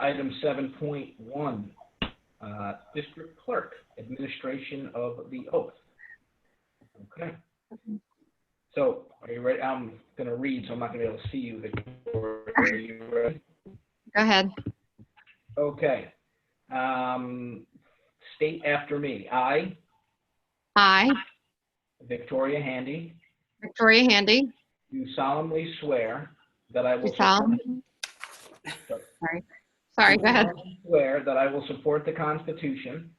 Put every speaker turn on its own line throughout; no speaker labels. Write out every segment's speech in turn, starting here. Item seven point one, uh, District Clerk, Administration of the Oath. Okay. So, are you ready? I'm gonna read, so I'm not gonna be able to see you. Victoria. Are you ready?
Go ahead.
Okay. Um, state after me. I,
I,
Victoria Handy,
Victoria Handy,
do solemnly swear that I will.
do solemnly. Sorry, sorry, go ahead.
Swear that I will support the Constitution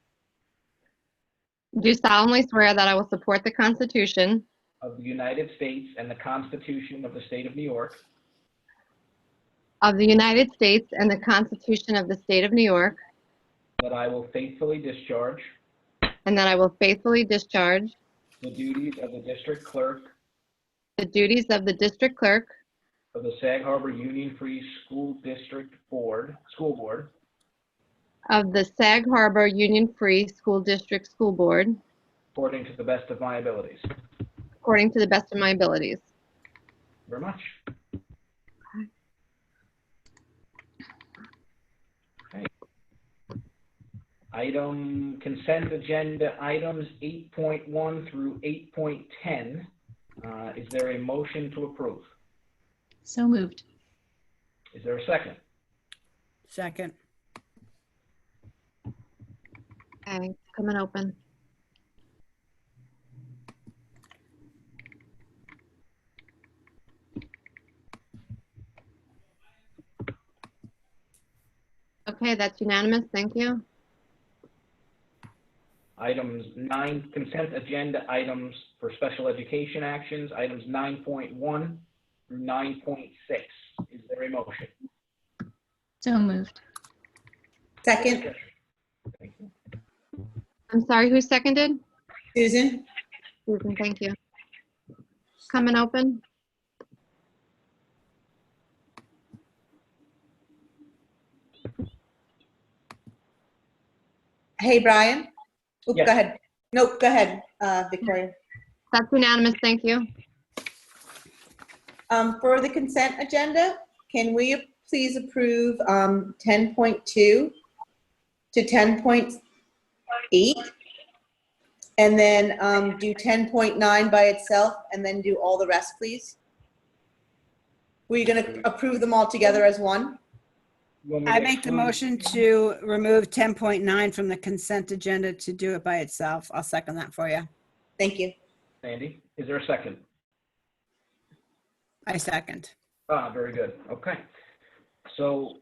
Do solemnly swear that I will support the Constitution
of the United States and the Constitution of the State of New York,
of the United States and the Constitution of the State of New York,
that I will faithfully discharge
and that I will faithfully discharge
the duties of the District Clerk
the duties of the District Clerk
of the Sag Harbor Union Free School District Board, School Board,
of the Sag Harbor Union Free School District School Board
according to the best of my abilities. Thank
according to the best of my abilities.
you Very much. Okay. Item consent agenda items 8.1 through 8.10. Uh, Is there a motion to approve?
So moved.
Is there a second?
Second.
Okay, come and open. Okay, that's unanimous. Thank you.
Items nine, consent agenda items for special education actions, items 9.1 through 9.6. Is there a motion?
So moved.
Second,
Thank you.
I'm sorry, who seconded?
Susan?
Susan, thank you. Come and open.
Hey, Brian? Oop,
Yes.
Go ahead. Nope, go ahead, uh, Victoria.
That's unanimous. Thank you.
Um, For the consent agenda, can we please approve um, 10.2 to 10.8? And then um, do 10.9 by itself, and then do all the rest, please? Were you going to approve them all together as one?
You want me
I
to
make the
exclude-
motion to remove 10.9 from the consent agenda to do it by itself. I'll second that for you.
Thank you.
Sandy, is there a second?
I second.
Ah, very good. Okay. So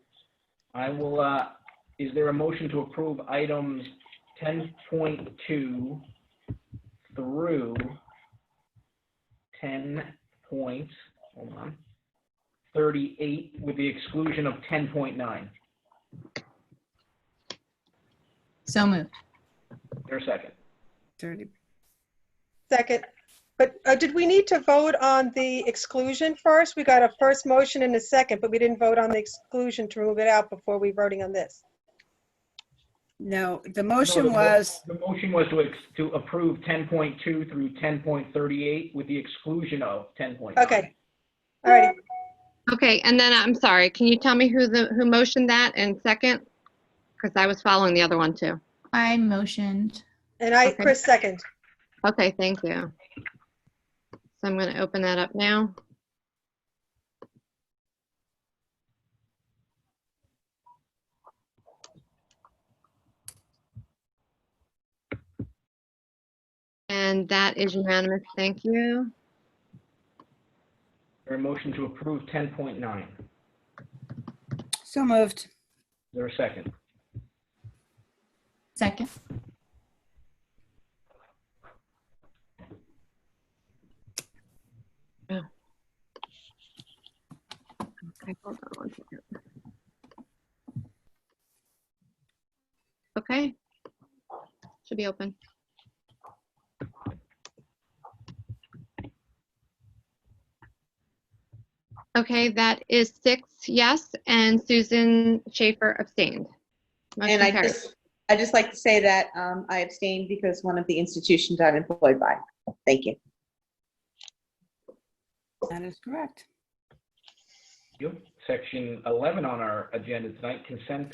I will, uh, is there a motion to approve items 10.2 through 10 point, hold on, 38 with the exclusion of 10.9?
So moved.
Is There a second?
30.
Second. But uh, did we need to vote on the exclusion first? We got a first motion and a second, but we didn't vote on the exclusion to remove it out before we voting on this.
No, the
No,
motion
the mo-
was,
The motion was to, ex- to approve 10.2 through 10.38 with the exclusion of 10.9.
Okay. All righty.
Okay, and then I'm sorry, can you tell me who the, who motioned that and second? Because I was following the other one too.
I motioned.
And I,
Okay.
Chris, second.
Okay, thank you. So I'm going to open that up now. And that is unanimous. Thank you.
Is There a motion to approve 10.9. Is
so moved.
there a second?
Second.
Okay, hold on one second. Okay. Should be open. Okay, that is six yes, and Susan Schaefer abstained.
And
Motion
I
carries.
just, I just like to say that um, I abstained because one of the institutions I'm employed by. Thank you.
That is correct.
Thank you. Section 11 on our agenda tonight, consent